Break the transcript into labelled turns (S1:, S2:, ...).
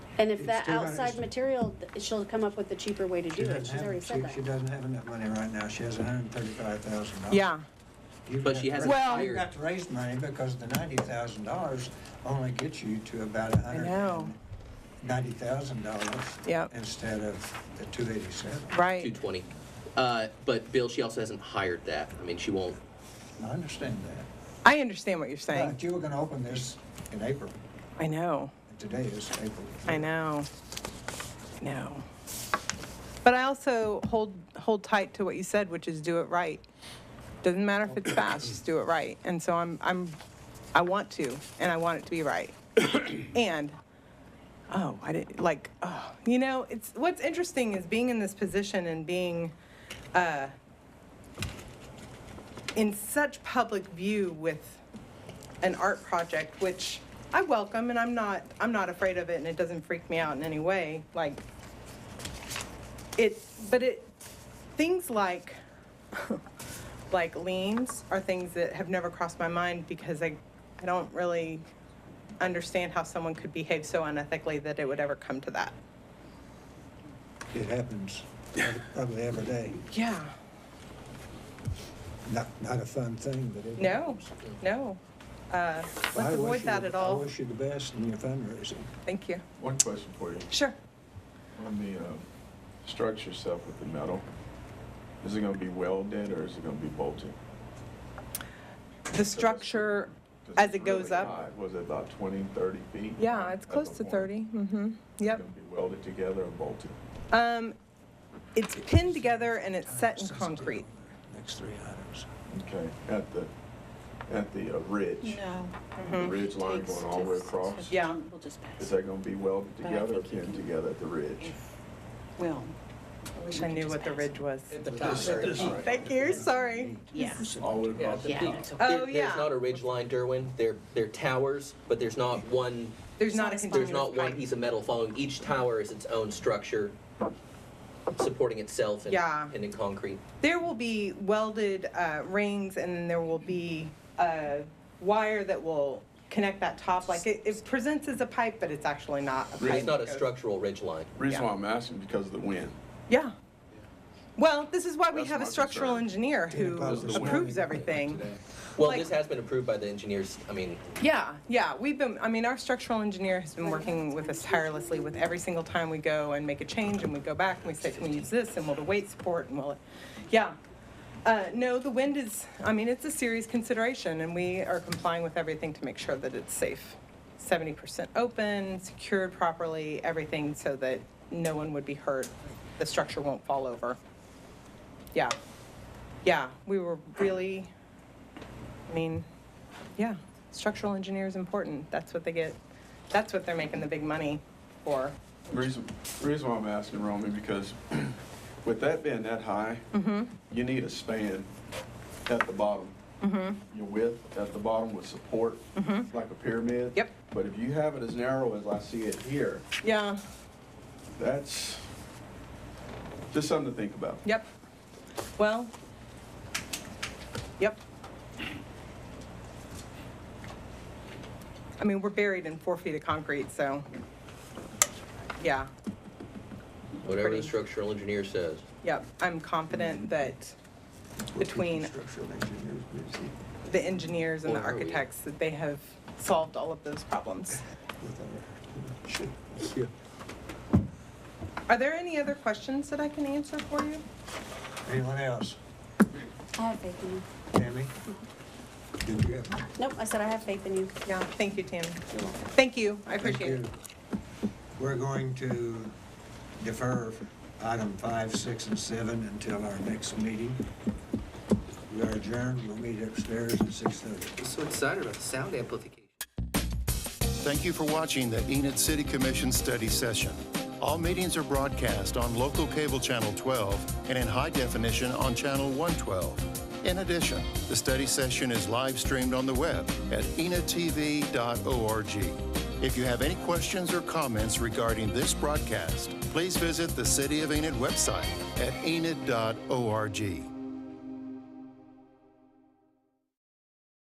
S1: And if
S2: It's
S1: that
S2: still gotta-
S1: outside
S2: it's-
S1: material, th- she'll come up with a cheaper way to
S2: She
S1: do it,
S2: doesn't
S1: she's
S2: have-
S1: already
S2: she-
S1: said
S2: She
S1: that.
S2: doesn't have enough money right now, she has hundred and thirty-five thousand dollars.
S3: Yeah,
S4: But she hasn't
S3: Well-
S2: You've
S4: hired.
S2: got to raise money because the ninety thousand dollars only gets you to about a hundred
S3: know.
S2: and ninety thousand dollars.
S3: Yep.
S2: Instead of the two eighty-seven.
S3: right.
S4: 220. Uh, but Bill, she also hasn't hired that. I mean, she won't.
S2: I understand that.
S3: I understand what you're saying.
S2: But you were gonna open this in April,
S3: I know,
S2: and today is April.
S3: I know, I know. But I also hold, hold tight to what you said, which is do it right. Doesn't matter if it's fast, just do it right. And so I'm, I'm, I want to, and I want it to be right. And, oh, I didn't, like, oh, you know, it's, what's interesting is being in this position and being, uh, in such public view with an art project, which I welcome, and I'm not, I'm not afraid of it, and it doesn't freak me out in any way, like, it, but it, things like, like liens are things that have never crossed my mind, because I, I don't really understand how someone could behave so unethically that it would ever come to that.
S2: It happens probably every day.
S3: Yeah.
S2: Not, not a fun thing, but it.
S3: No,
S2: happens.
S3: no, uh,
S2: I
S3: let's
S2: wish
S3: avoid
S2: you-
S3: that at
S2: I
S3: all,
S2: wish you the best in your fundraising.
S3: thank you.
S5: One question for you.
S3: Sure.
S5: On the um, structure itself with the metal, is it going to be welded or is it going to be bolted?
S3: The structure, as it goes up,
S5: Was it about 20, 30 feet?
S3: yeah, it's
S5: At
S3: close
S5: the
S3: to
S5: point.
S3: thirty, mm-hmm,
S5: Is it
S3: yep.
S5: going to be welded together or bolted?
S3: Um, it's pinned together and it's set in concrete.
S2: Next three items.
S5: Okay, at the, at the uh, ridge?
S6: No.
S3: Mm-hmm.
S5: The ridge line
S6: Takes
S5: going all the way
S6: just-
S5: across?
S3: Yeah.
S6: We'll just
S5: Is
S6: pass.
S5: that going to be welded
S6: But I
S5: together or
S6: think you
S5: pinned
S6: can-
S5: together at the ridge?
S6: Well.
S3: Wish I knew what the ridge was.
S5: Right.
S3: Thank you, sorry.
S6: Yeah.
S5: All the way across?
S6: Yeah.
S4: There-
S3: Oh, yeah.
S4: There's not a ridge line, Derwin. They're, they're towers, but there's not one,
S3: There's not a
S4: there's
S3: continuous
S4: not one
S3: pipe.
S4: piece of metal following. Each tower is its own structure, supporting itself and,
S3: Yeah.
S4: and in concrete.
S3: There will be welded, uh, rings and then there will be a wire that will connect that top, like it, it presents as a pipe, but it's actually not a pipe.
S4: It's not a
S3: It goes-
S4: structural ridge line.
S5: Reason why I'm asking because of the wind.
S3: Yeah. Well, this is why we
S5: That's
S3: have a
S5: my
S3: structural
S5: concern.
S3: engineer who
S2: Because
S5: the wind-
S3: approves everything.
S4: Well,
S3: Like-
S4: this has been approved by the engineers. I mean,
S3: Yeah, yeah, we've been, I mean, our structural engineer has been working with us tirelessly with every single time we go and make a change and we go back and we say, can we use this and will the weight support and will it, yeah. Uh, no, the wind is, I mean, it's a serious consideration and we are complying with everything to make sure that it's safe. Seventy percent open, secured properly, everything so that no one would be hurt, the structure won't fall over. Yeah, yeah, we were really, I mean, yeah, structural engineer is important. That's what they get, that's what they're making the big money for.
S5: Reason, reason why I'm asking, Romy, because with that being that high,
S3: Mm-hmm.
S5: you need a span at the bottom. Your width at the bottom with support, like a pyramid.
S3: Mm-hmm. Yep.
S5: But if you have it as narrow as I see it here,
S3: Yeah,
S5: that's just something to think about.
S3: yep. Well, yep. I mean, we're buried in four feet of concrete, so, yeah,
S4: whatever the
S3: Pretty.
S4: structural engineer says.
S3: yep. I'm confident that Between-
S2: Structural engineers busy
S3: the engineers and the
S4: Or are we?
S3: architects, that they have solved all of those problems.
S2: with our shit.
S3: Are there any other questions that I can answer for you?
S2: Anyone else?
S1: I have faith in you.
S2: Tammy? Did you have?
S1: Nope, I said I have faith in you.
S3: Yeah, thank you, Tammy. Thank you, I appreciate it.
S2: Thank you. We're going to defer item five, six, and seven until our next meeting. We are adjourned. We'll meet upstairs at six thirty.
S4: I'm so excited about the sound amplification.
S7: Thank you for watching the Enid City Commission study session. All meetings are broadcast on local cable channel 12 and in high definition on channel 112. In addition, the study session is live streamed on the web at enidtv.org. If you have any questions or comments regarding this broadcast, please visit the City of Enid website at enid.org.